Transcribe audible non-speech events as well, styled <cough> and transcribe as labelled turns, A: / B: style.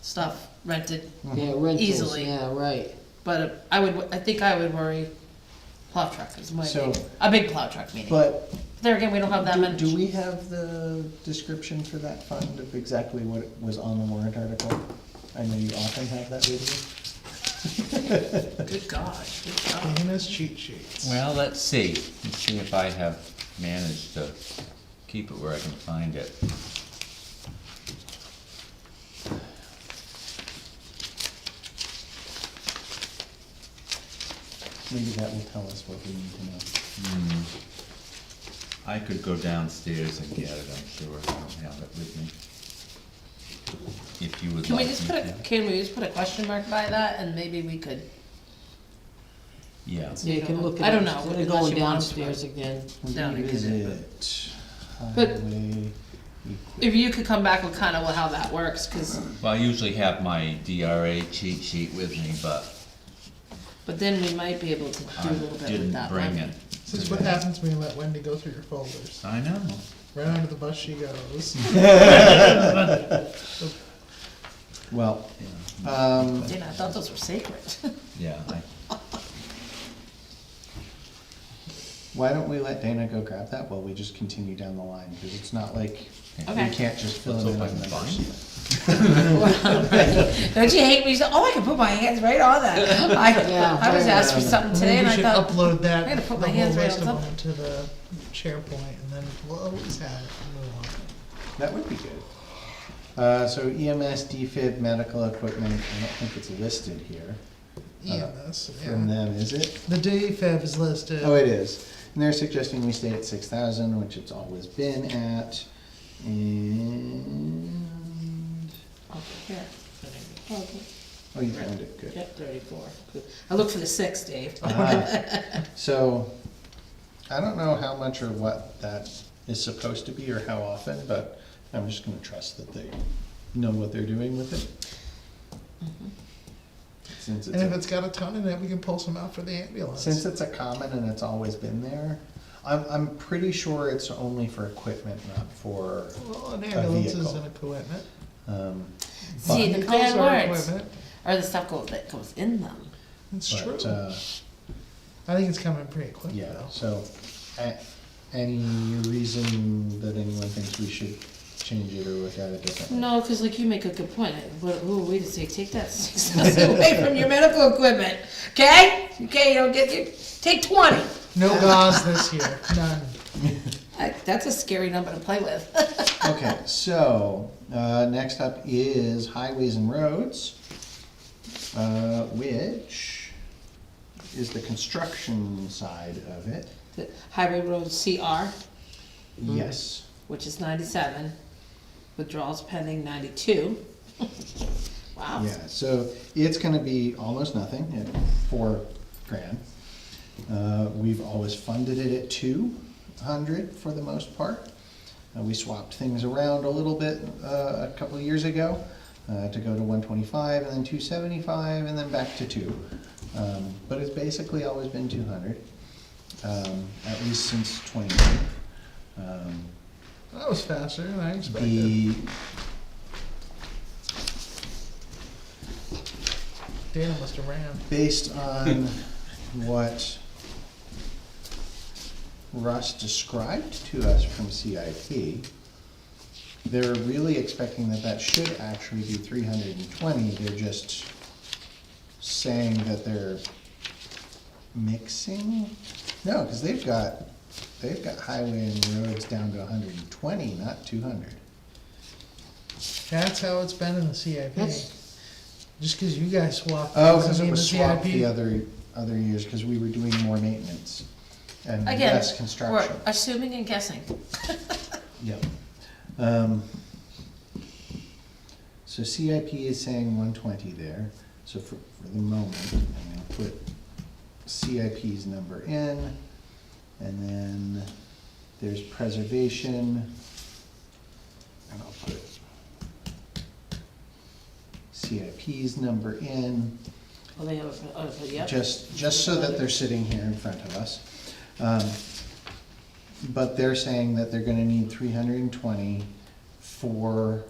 A: stuff rented,
B: Yeah, rentals,
A: Easily.
B: yeah, right.
A: but I would, I think I would worry plow truck is my
C: So-
A: big, a big plow truck meeting.
C: But
A: There again, we don't have that
C: do,
A: many.
C: do we have the description for that fund of exactly what was on the warrant article? I know you often have that with you.
A: Good God, good God.
D: Dana's cheat sheets.
E: Well, let's see, let's see if I have managed to keep it where I can find it.
C: Maybe that will tell us what we need to know.
E: Hmm. I could go downstairs and get it, I'm sure, I don't have it with me. If you would
A: Can we
E: like
A: just
E: me
A: put a,
E: to.
A: can we just put a question mark by that and maybe we could,
E: Yeah,
B: Yeah, you can look at.
A: I don't know,
B: They're
A: unless
B: going
A: you want us to.
B: downstairs again.
A: Down again.
C: Revisit
A: But-
C: highway equip-
A: if you could come back with kind of how that works, cause,
E: well, I usually have my DRA cheat sheet with me, but
A: but then we might be able to do
E: I
A: a little bit with
E: didn't
A: that
E: bring
A: money.
E: it.
D: This is what happens when you let Wendy go through your folders.
E: I know,
D: Right under the bus
C: <laughs>
D: she goes.
C: Well,
E: yeah,
C: um,
A: Yeah, I thought those were sacred. <laughs>
E: yeah, I,
C: why don't we let Dana go grab that while we just continue down the line? Because it's not like we
A: Okay.
C: can't just fill
E: let's
C: it in
E: hope
C: on
E: I can
C: numbers.
E: find it.
A: Don't you hate me? You say, oh, I can put my hands right on that.
B: Yeah.
A: I, I was asked for something today and I thought,
D: Maybe we should upload
A: I
D: that,
A: gotta
D: the
A: put my
D: whole
A: hands right
D: list of
A: on top.
D: them to the SharePoint, and then we'll always have it and
C: Uh,
D: move on.
C: That would be good. Uh, so EMS, DFib, medical equipment, I don't think it's listed here
D: EMS,
C: from
D: E yeah.
C: them, is it?
D: The DFAB is listed.
C: Oh, it is. And they're suggesting we stay at six thousand, which it's always been at, and,
A: "Oh, here. Okay.
C: oh, you found it, good.
A: Yep, thirty-four. Good. I looked for the six, Dave.
C: Ah, So, I don't know how much or what that is supposed to be or how often, but I'm just gonna trust that they know what they're doing with it. Since it's
D: And if
C: a
D: it's got a ton in it, we can pull some out for the
C: Since
D: ambulance.
C: it's a common and it's always been there, I'm, I'm pretty sure it's only for equipment, not for,
D: Well, an ambulance is
C: vehicle.
D: an equipment.
C: um,
A: See, the
D: Vehicles
A: bad
D: are
A: words
D: equipment.
A: are the stuff go- that goes in them.
D: It's
C: but,
D: true.
C: uh,
D: I think it's coming pretty quick
C: yeah,
D: though.
C: so, a- any reason that anyone thinks we should change it or look at it differently?
A: No, because like you make a good point. Like, What, who are we to say, take that <laughs> six thousand away from your medical equipment, okay? Okay, you don't get, you, take twenty.
D: No gauze this year, none.
A: I- That's a scary number to play with. <laughs>
D: Mm.
C: Okay, so, uh, next up is highways and roads, uh, which is the construction side of it,
A: The Highway road CR,
D: Mm.
C: yes.
A: which is ninety-seven, withdrawals pending ninety-two. <laughs> Wow.
C: Yeah, so it's gonna be almost nothing at four grand. Uh, we've always funded it at two hundred for the most part. Uh, we swapped things around a little bit, uh, a couple of years ago, uh, to go to one twenty-five and then two seventy-five and then back to two. Um, but it's basically always been two hundred, um, at least since twenty. Um,
D: That was faster than I expected.
C: the,
D: Dana must have ran.
C: based on what Russ described to us from CIP, they're really expecting that that should actually be three hundred and twenty, they're just saying that they're mixing? No, cause they've got, they've got highway and roads down to hundred and twenty, not two hundred.
D: That's how it's been in the CIP.
A: That's-
D: Just because you guys swapped.
C: Oh,
D: doesn't
C: cause it
D: mean
C: was
D: the
C: swapped
D: CIP
C: the other, other years, cause we were doing more maintenance and
A: Again,
C: less construction.
A: we're assuming and guessing.
C: Yep. Um, So CIP is saying one twenty there, so for, for the moment, I'm gonna put CIP's number in, and then there's preservation, and I'll put CIP's number in,
A: Well, they have, a- oh, but yep.
C: just, just so that they're sitting here in front of us. Um, But they're saying that they're gonna need three hundred and twenty for